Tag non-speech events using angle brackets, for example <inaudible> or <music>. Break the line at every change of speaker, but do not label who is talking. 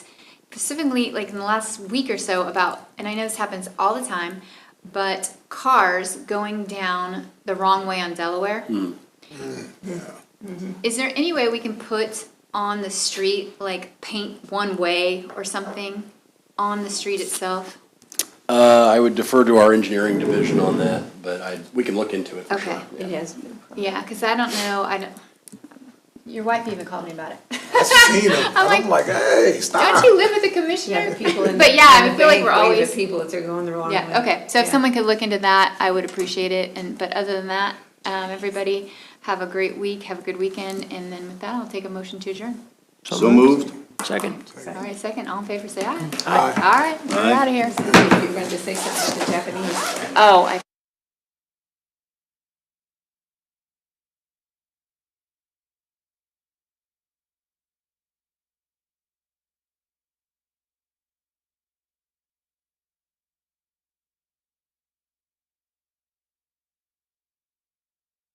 specifically like in the last week or so about, and I know this happens all the time, but cars going down the wrong way on Delaware. Is there any way we can put on the street, like paint one way or something on the street itself?
Uh, I would defer to our engineering division on that, but I, we can look into it for sure.
Okay,
Yeah.
It has been.
yeah, because I don't know, I don't, your wife even called me about it.
I've seen them.
<laughs> I'm like,
I'm like, hey,
Don't
stop.
you live with the
Yeah,
commissioner?
the
<laughs>
people in.
But yeah, I
in the
feel like
vague
we're
way, the
always-
People that they're going the wrong way.
Yeah, okay, so if
Yeah.
someone could look into that, I would appreciate it, and, but other than that, um, everybody, have a great week, have a good weekend, and then with that, I'll take a motion to adjourn.
So moved.
Second.
All right, second, all in favor, say aye.
Aye.
All right, we're out of here.
You're going to say something about the Japanese.
Oh, I